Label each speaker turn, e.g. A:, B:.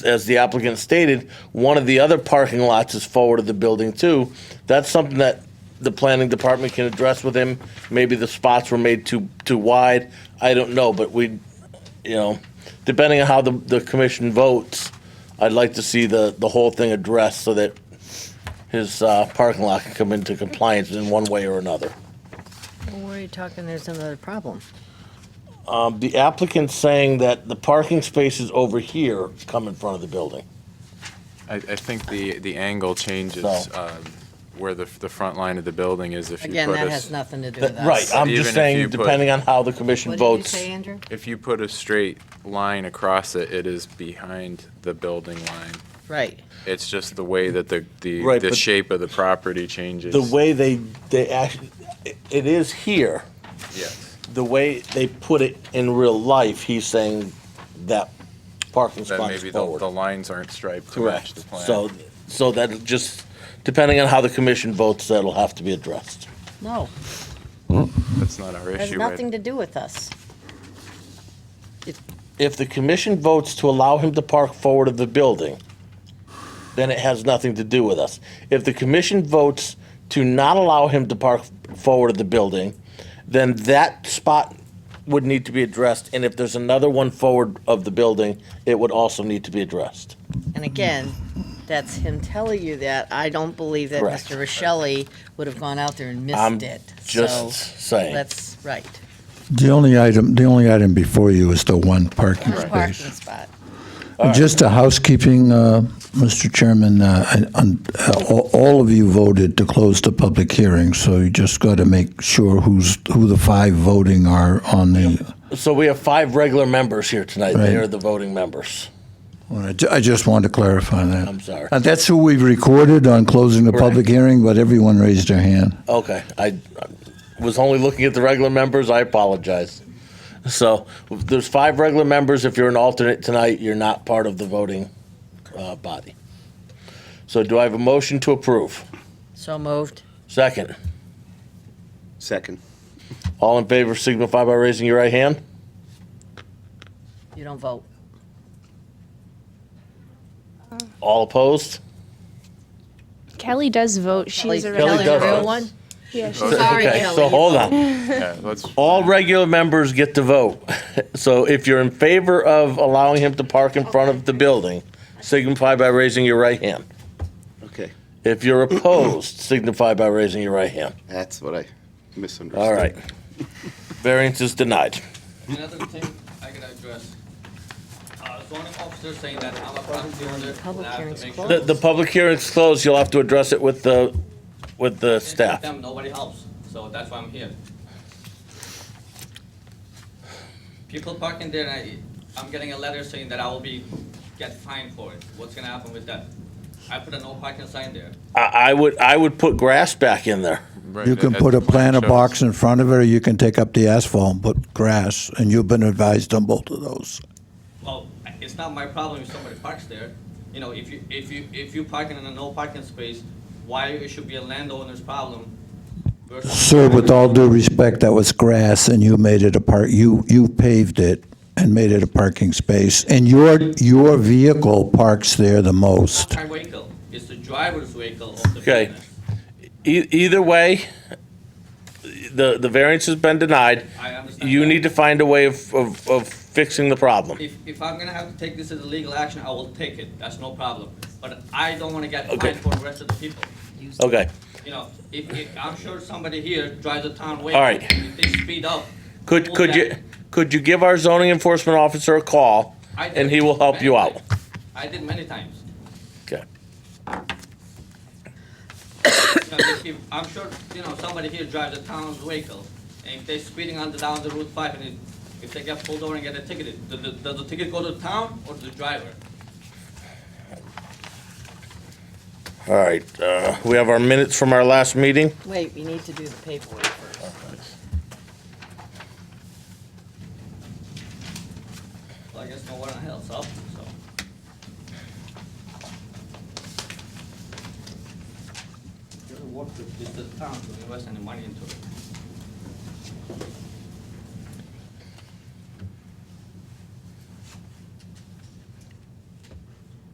A: as the applicant stated, one of the other parking lots is forward of the building too. That's something that the planning department can address with him. Maybe the spots were made too, too wide. I don't know, but we, you know, depending on how the, the commission votes, I'd like to see the, the whole thing addressed so that his, uh, parking lot can come into compliance in one way or another.
B: Well, where are you talking, there's another problem?
A: Um, the applicant's saying that the parking spaces over here come in front of the building.
C: I, I think the, the angle changes
A: So-
C: um, where the, the front line of the building is if you
B: Again,
C: put
B: that
C: a,
B: has
C: s-
B: nothing to do
A: That-
B: with us.
A: Right, I'm
C: Even
A: just
C: if
A: saying,
C: you put-
A: depending on how the commission
B: What did you
A: votes.
B: say, Andrew?
C: if you put a straight line across it, it is behind the building line.
B: Right.
C: It's just the way that the, the,
A: Right,
C: the
A: but-
C: shape of the property changes.
A: The way they, they actually, it is here,
C: Yes,
A: the way they put it in real life, he's saying that parking
C: then
A: spot
C: maybe
A: is
C: the, the
A: forward.
C: lines aren't striped to match the
A: Correct,
C: plan.
A: so, so that just, depending on how the commission votes, that'll have to be addressed.
B: No,
C: That's not our
B: has
C: issue. right?
B: nothing to do with us.
A: If the commission votes to allow him to park forward of the building, then it has nothing to do with us. If the commission votes to not allow him to park forward of the building, then that spot would need to be addressed, and if there's another one forward of the building, it would also need to be addressed.
B: And again, that's him telling you that. I don't believe that
A: Correct.
B: Mr. Rochelli would have gone out there and
A: I'm
B: missed it. So
A: Just saying.
B: That's right.
D: The only item, the only item before you is the one parking
B: His
D: space.
B: parking spot.
D: Just a housekeeping, uh, Mr. Chairman, uh, I- on- uh, all all of you voted to close the public hearing, so you just got to make sure who's, who the five voting are on the,
A: So we have five regular members here tonight. They
D: Right.
A: are the voting members.
D: All right, ju- I just wanted to clarify that.
A: I'm sorry.
D: And that's who we've recorded on closing the public
A: Correct.
D: hearing, but everyone raised their hand.
A: Okay, I I was only looking at the regular members. I apologize. So there's five regular members. If you're an alternate tonight, you're not part of the voting uh, body. So do I have a motion to approve?
B: So moved.
A: Second.
E: Second.
A: All in favor signify by raising your right hand.
B: You don't vote.
A: All opposed?
F: Kelly does vote. She's
B: Kelly-
F: a
A: Kelly
B: Kelly,
A: does
B: the real
A: vote.
B: one?
F: Yeah, she's
B: Sorry,
A: okay,
B: Kelly.
A: so hold on.
C: Yeah, let's,
A: All regular members get to vote. So if you're in favor of allowing him to park in front of the building, signify by raising your right hand.
E: Okay.
A: If you're opposed, signify by raising your right hand.
E: That's what I misunderstood.
A: All right. Variance is denied.
G: Another thing I gotta address, uh, zoning officer saying that I'm a property owner.
B: Public
G: and I have to
B: hearing's
G: make
A: The,
G: sure-
A: the public hearing's closed. You'll have to address it with the, with the staff.
G: Them, nobody helps, so that's why I'm here. People parking there, and I, I'm getting a letter saying that I will be, get fined for it. What's gonna happen with that? I put a no parking sign there.
A: I, I would, I would put grass back in there.
C: right,
D: You can
C: as
D: put
C: the
D: a
C: plan
D: planter
C: shows.
D: box in front of it, or you can take up the asphalt and put grass, and you've been advised on both of those.
G: Well, it's not my problem if somebody parks there. You know, if you, if you, if you parking in a no parking space, why it should be a landowner's problem? versus-
D: Sir, with all due respect, that was grass, and you made it a park, you, you paved it and made it a parking space, and your, your vehicle parks there the most.
G: Our vehicle, it's the driver's vehicle of the
A: Okay.
G: business.
A: E- either way, the, the variance has been denied.
G: I understand.
A: You
G: that.
A: need to find a way of, of, of fixing the problem.
G: If, if I'm gonna have to take this as a legal action, I will take it, that's no problem. But I don't wanna get
A: Okay.
G: fined for the rest of the people.
A: Okay,
G: You know, if, if, I'm sure somebody here drives a town vehicle.
A: All right.
G: If they speed up.
A: could,
G: pull
A: could you,
G: back.
A: could you give our zoning enforcement officer a call?
G: I did
A: And he will help you
G: many
A: out.
G: times. I did many times.
A: Okay.
G: You know, if- if- I'm sure, you know, somebody here drives a town's vehicle, and if they're speeding on the, down the Route five, and if- if they get pulled over and get a ticket, does, the- does the ticket go to the town or to the driver?
A: All right, uh, we have our minutes from our last meeting.
B: Wait, we need to do the paperwork first.
G: Well, I guess no one else up, so. Gotta work with the town to invest any money into it.